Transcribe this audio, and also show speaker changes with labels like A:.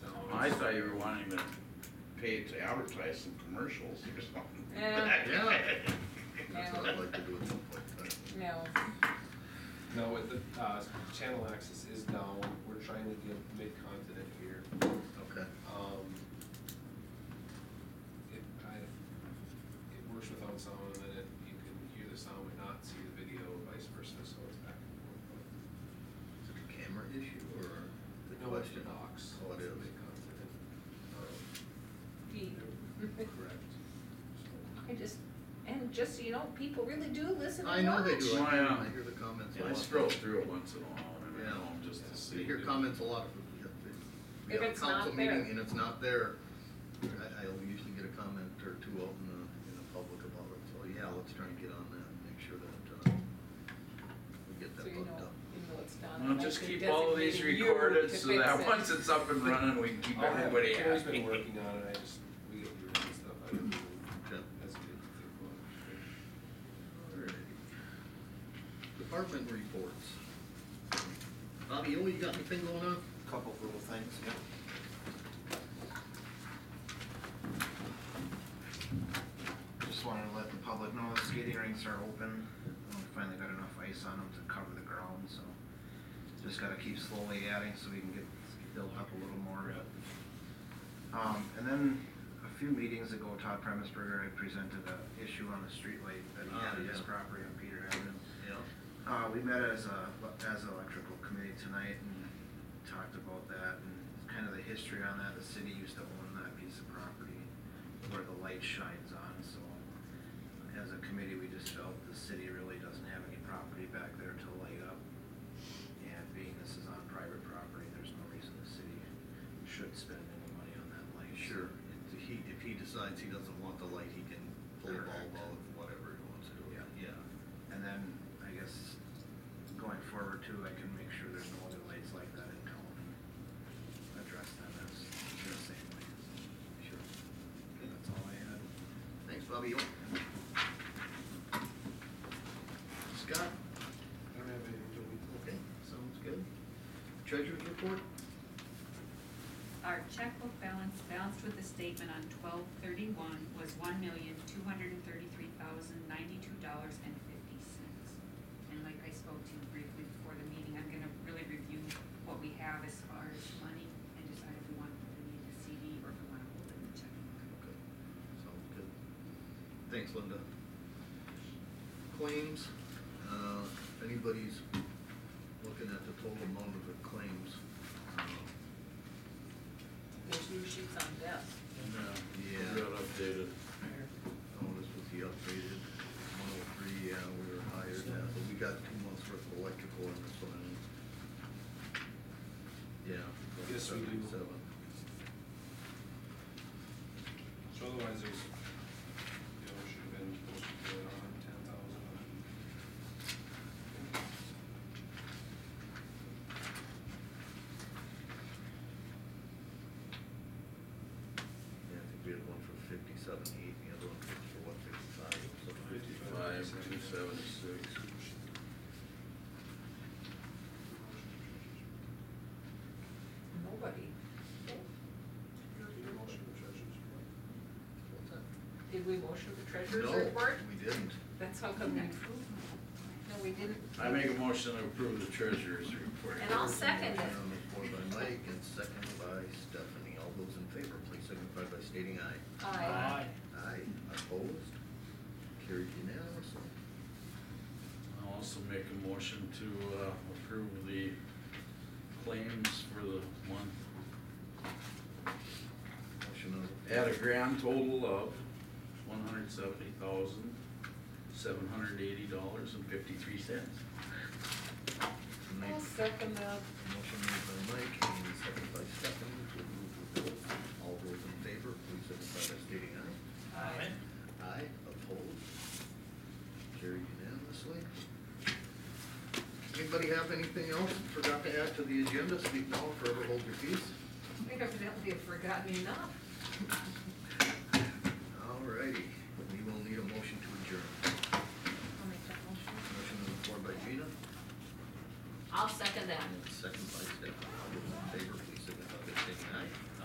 A: I thought you were wanting to pay it to advertise some commercials or something.
B: Yeah.
C: Yeah.
B: No.
C: That's what I'd like to do at some point in time.
B: No,
D: No, with the, uh, channel access is down, we're trying to get mid-continent here,
C: Okay.
D: um. It, I, it works without sound, and then it, you can hear the sound but not see the video, vice versa, so it's back and forth. but-
C: Is it a camera issue or the
D: No, it's
C: question?
D: Knox.
C: Oh, it is.
D: Mid-continent, um,
B: deep.
D: correct, so.
B: I just, and just so you know, people really do listen
C: I
B: and
C: know
B: watch.
C: they do.
A: Why, uh,
C: I I hear the comments a
A: Yeah, I
C: lot.
A: scroll through it once in a while, when I'm at
C: Yeah.
A: home, just to see.
C: You hear comments a lot. if- We have
B: If
C: a
B: it's not
C: council
B: there.
C: meeting and it's not there, I, I'll usually get a comment or two out in the, in the public about it. So, yeah, let's try and get on that and make sure that, uh, we get
B: So
C: that
B: you know,
C: looked up.
B: you know it's done.
A: Well,
B: unless
A: just
B: they
A: keep all of these
B: designate you
A: recorded
B: to
A: so
B: fix
A: that
B: it.
A: once it's up and running, we can keep
D: I'll have-
A: everybody happy.
D: Kerry's been working on it, I just, we get through that stuff, I don't,
C: Okay.
D: that's good, good
C: Alrighty. Department reports. Bobby, oh, you got anything going on?
E: Couple of little things, yeah. Just wanted to let the public know the skating rinks are open. Uh, We finally got enough ice on them to cover the ground, so just gotta keep slowly adding so we can get built up a little more. Um, and then a few meetings ago, Todd Premisberger had presented a issue on the streetlight that he had
C: Ah,
E: at his
C: yeah.
E: property on Peter Avenue.
C: Yeah.
E: Uh, we met as a, as an electrical committee tonight and talked about that and kind of the history on that. The city used to own that piece of property where the light shines on, so as a committee, we just felt the city really doesn't have any property back there to light up. And being this is on private property, there's no reason the city should spend any money on that light.
C: Sure, if he, if he decides he doesn't want the light, he can pull the bulb out, whatever he wants to do.
E: Yeah.
C: Yeah.
E: And then, I guess, going forward too, I can make sure there's no other lights like that in town and address them as the same way.
C: Sure.
E: Okay, That's all I had.
C: Thanks, Bobby. Scott?
D: I don't have anything to week.
C: Okay, sounds good. Treasurer's report?
F: Our checkbook balance balanced with the statement on twelve thirty-one was one million, two hundred and thirty-three thousand, ninety-two dollars and fifty cents. And like I spoke to you briefly before the meeting, I'm gonna really review what we have as far as money and decide if we want to put it in the CD or if we wanna hold it in the checking.
C: Okay, sounds good. Thanks, Linda. Claims, uh, if anybody's looking at the total amount of the claims. uh,
B: There's new sheets on desk.
A: uh,
C: Yeah.
A: Real updated.
C: Oh, this was the updated one oh three, yeah, we were higher than that, but we got two months worth of electrical in this one. and- Yeah.
D: Yes, we do.
C: 77.
D: So otherwise, there's, you know, should have been supposed to put on ten thousand.
C: Yeah, I think we had one for fifty-seven eight, and the other one for what, fifty-five, something.
A: Five, two, seven, six.
B: Nobody.
D: Need a motion to treasurer's report?
C: What's that?
B: Did we motion the treasurer's
C: No,
B: report?
C: we didn't.
B: That's how come we, no, we didn't.
A: I make a motion to approve the treasurer's report.
B: And I'll second it.
C: Motion On the floor Um, by Mike and second by Stephanie, all those in favor, please signify by stating aye.
B: Aye.
C: Aye, opposed, carried unanimously.
A: I'll also make a motion to, uh, approve the claims for the month
C: Motion on the
A: at a grand total of one hundred seventy thousand, seven hundred eighty dollars and fifty-three cents.
C: Mike.
B: I'll second that.
C: Motion made by Mike and second by Stephanie to approve the bill. All those in favor, please signify by stating aye.
B: Aye.
C: Aye, opposed, carried unanimously. Anybody have anything else forgot to add to the agenda? Speak now or forever hold your peace.
B: We evidently have forgotten enough.
C: Alrighty, we will need a motion to adjourn.
B: I'll make that motion.
C: Motion on the floor by Gina
B: I'll second that.
C: and second by Stephanie. All those in favor, please signify by stating aye.